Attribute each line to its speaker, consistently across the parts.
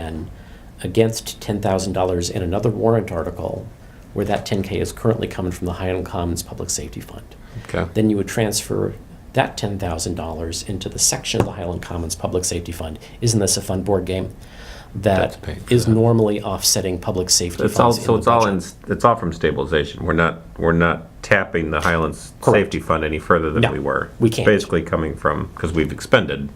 Speaker 1: action against $10,000 in another warrant article where that 10K is currently coming from the Highland Commons Public Safety Fund.
Speaker 2: Okay.
Speaker 1: Then you would transfer that $10,000 into the section of the Highland Commons Public Safety Fund. Isn't this a fun board game?
Speaker 2: That's
Speaker 1: That
Speaker 2: paying for
Speaker 1: is
Speaker 2: that.
Speaker 1: normally offsetting public safety
Speaker 2: It's all,
Speaker 1: funds
Speaker 2: so
Speaker 1: in
Speaker 2: it's
Speaker 1: the
Speaker 2: all in,
Speaker 1: budget.
Speaker 2: it's all from stabilization. We're not, we're not tapping the Highlands
Speaker 1: Correct.
Speaker 2: Safety Fund any further than
Speaker 1: No,
Speaker 2: we were.
Speaker 1: we can't.
Speaker 2: Basically coming from, because we've expended,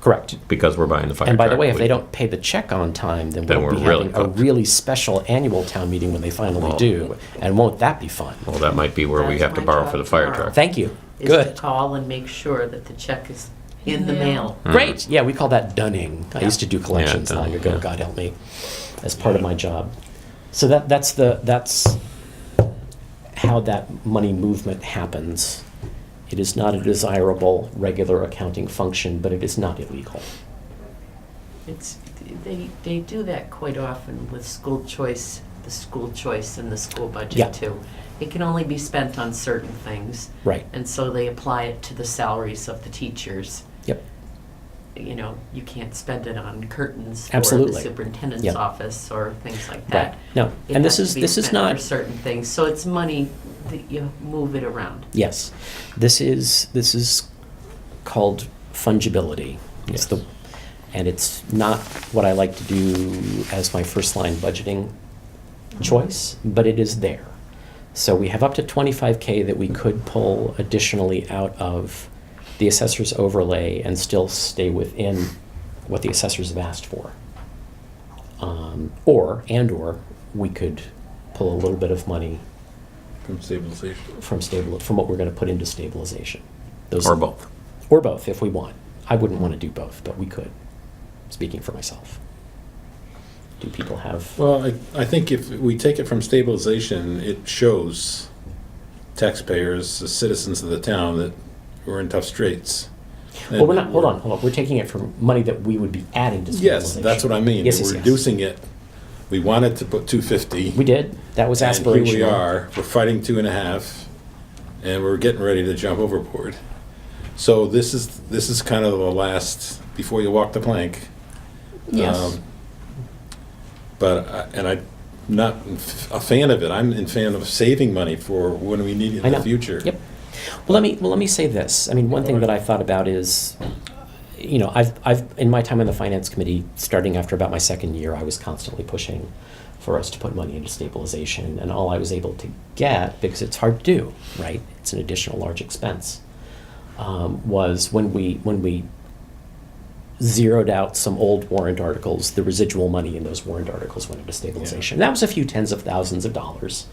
Speaker 1: Correct.
Speaker 2: because we're buying the fire
Speaker 1: And by the
Speaker 2: truck.
Speaker 1: way, if they
Speaker 2: We-
Speaker 1: don't pay the check on time, then
Speaker 2: Then
Speaker 1: we'll be
Speaker 2: we're really
Speaker 1: having a
Speaker 2: cooked.
Speaker 1: really special annual town meeting when they finally
Speaker 2: Well-
Speaker 1: do. And won't that be fun?
Speaker 2: Well, that might be where we
Speaker 3: That's
Speaker 2: have to
Speaker 3: my
Speaker 2: borrow
Speaker 3: job
Speaker 2: for the fire
Speaker 3: tomorrow.
Speaker 2: truck.
Speaker 1: Thank you.
Speaker 3: is to
Speaker 1: Good.
Speaker 3: call and make sure that the check is in the mail.
Speaker 1: Great. Yeah, we call that dunning. I used to do collections
Speaker 2: Mm. dunning,
Speaker 1: long ago.
Speaker 2: yeah.
Speaker 1: God help me, as part of my job. So that that's the that's how that money movement happens. It is not a desirable regular accounting function, but it is not illegal.
Speaker 3: It's, they, they do that quite often with school choice, the school choice and the school
Speaker 1: Yeah.
Speaker 3: budget too. It can only be spent on certain things.
Speaker 1: Right.
Speaker 3: And so they apply it to the salaries of the teachers.
Speaker 1: Yep.
Speaker 3: You know, you can't spend it on curtains for
Speaker 1: Absolutely.
Speaker 3: the superintendent's
Speaker 1: Yeah.
Speaker 3: office or things like
Speaker 1: Right.
Speaker 3: that.
Speaker 1: No.
Speaker 3: It
Speaker 1: And this
Speaker 3: has to
Speaker 1: is
Speaker 3: be
Speaker 1: this is
Speaker 3: spent
Speaker 1: not
Speaker 3: for certain things. So it's money that you move it around.
Speaker 1: Yes, this is this is called fungibility. It's the,
Speaker 2: Yes.
Speaker 1: and it's not what I like to do as my first line budgeting choice, but it is there. So we have up to 25K that we could pull additionally out of the assessor's overlay and still stay within what the assessors have asked for. Um, or, and or, we could pull a little bit of money
Speaker 4: From stabilization.
Speaker 1: from stable, from what we're going to put into stabilization. Those-
Speaker 2: Or both.
Speaker 1: Or both, if we want. I wouldn't want to do both, but we could, speaking for myself. Do people have,
Speaker 4: Well, I, I think if we take it from stabilization, it shows taxpayers, the citizens of the town, that we're in tough straits.
Speaker 1: well, we're not, hold on, hold on, we're taking it from money that we would be adding to
Speaker 4: Yes,
Speaker 1: stabilization.
Speaker 4: that's what I mean.
Speaker 1: Yes, yes,
Speaker 4: We're
Speaker 1: yes.
Speaker 4: reducing it. We wanted to put two fifty.
Speaker 1: We did, that was aspirational.
Speaker 4: And here we are, we're fighting two and a half, and we're getting ready to jump overboard. So this is, this is kind of the last, before you walk the plank.
Speaker 1: Yes,
Speaker 4: Um, But, I- and I'm not a fan of it. I'm in fan of saving money for when we need it
Speaker 1: I
Speaker 4: in
Speaker 1: know.
Speaker 4: the future.
Speaker 1: Yep. Well, let me, well, let me say this. I mean, one thing that I thought about is, you know, I've, I've, in my time on the finance committee, starting after about my second year, I was constantly pushing for us to put money into stabilization, and all I was able to get, because it's hard to do, right? It's an additional large expense, um, was when we, when we zeroed out some old warrant articles, the residual money in those warrant articles went into stabilization. That was a few tens of thousands of dollars.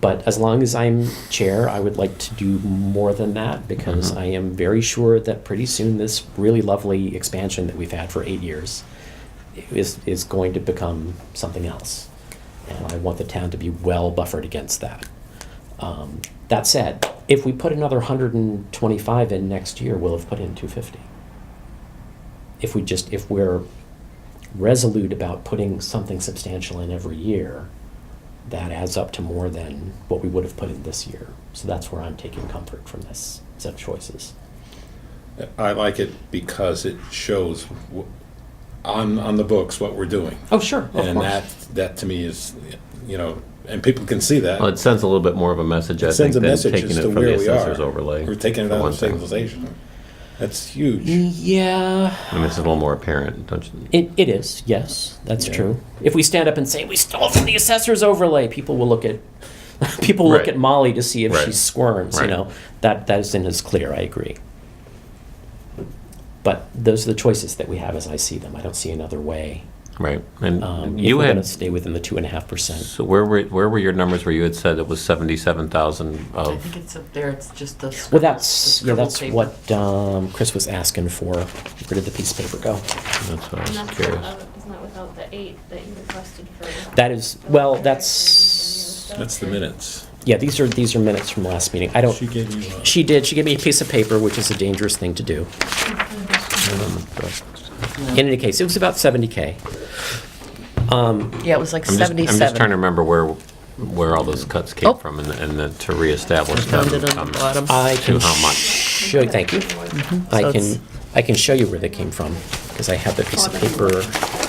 Speaker 1: But as long as I'm chair, I would like to do more than that because I am very sure that pretty soon this really lovely expansion that we've had for eight years is, is going to become something else. And I want the town to be well buffered against that. Um, that said, if we put another 125 in next year, we'll have put in 250. If we just, if we're resolute about putting something substantial in every year, that adds up to more than what we would have put in this year. So that's where I'm taking comfort from this set of choices.
Speaker 4: I like it because it shows wh- on, on the books what we're doing.
Speaker 1: Oh, sure, of
Speaker 4: And
Speaker 1: course.
Speaker 4: that, that to me is, you know, and people can see that.
Speaker 2: Well, it sends a little bit more of a message, I
Speaker 4: It
Speaker 2: think,
Speaker 4: sends a
Speaker 2: than
Speaker 4: message
Speaker 2: taking
Speaker 4: as
Speaker 2: it
Speaker 4: to
Speaker 2: from the
Speaker 4: where we
Speaker 2: assessor's
Speaker 4: are.
Speaker 2: overlay.
Speaker 4: We're taking it
Speaker 2: for
Speaker 4: out
Speaker 2: one
Speaker 4: of
Speaker 2: thing.
Speaker 4: stabilization. That's
Speaker 1: Mm.
Speaker 4: huge.
Speaker 1: yeah,
Speaker 2: I mean, it's a little more apparent, don't you?
Speaker 1: it, it is. Yes, that's
Speaker 4: Yeah.
Speaker 1: true. If we stand up and say we stole from the assessor's overlay, people will look at people will look
Speaker 2: Right.
Speaker 1: at Molly to see if she
Speaker 2: Right.
Speaker 1: squirms.
Speaker 2: Right.
Speaker 1: You know that that isn't as clear. I agree. But those are the choices that we have as I see them. I don't see another way.
Speaker 2: Right.
Speaker 1: Um,
Speaker 2: And
Speaker 1: if
Speaker 2: you
Speaker 1: we're going to
Speaker 2: had,
Speaker 1: stay within the two and a half percent.
Speaker 2: so where were, where were your numbers where you had said it was 77,000
Speaker 3: I
Speaker 2: of?
Speaker 3: think it's up there, it's just the. scribble-
Speaker 1: Well,
Speaker 3: the
Speaker 1: that's yeah,
Speaker 3: scribble
Speaker 1: that's
Speaker 3: paper.
Speaker 1: what um, Chris was asking for. Where did the piece of paper go?
Speaker 2: That's what I
Speaker 5: And
Speaker 2: was
Speaker 5: that's
Speaker 2: curious.
Speaker 5: not, it's not without the eight that you requested for.
Speaker 1: That is well, that's
Speaker 5: Corrections and
Speaker 4: That's the minutes.
Speaker 1: yeah. These are these are minutes from last meeting. I don't.
Speaker 4: She gave you a-
Speaker 1: She did. She gave me a piece of paper, which is a dangerous thing to do. Um, In any case, it was about 70K. Um,
Speaker 3: Yeah, it was like
Speaker 2: I'm just, I'm just trying to
Speaker 3: seventy-seven.
Speaker 2: remember where, where all those cuts came
Speaker 3: Oh.
Speaker 2: from and, and then to reestablish them.
Speaker 3: Found it on
Speaker 2: um,
Speaker 3: the bottom.
Speaker 1: I can
Speaker 2: To how much?
Speaker 1: show. Thank you. I
Speaker 3: Mm-hmm. So
Speaker 1: can
Speaker 3: it's-
Speaker 1: I can show you where they came from because I have the piece of paper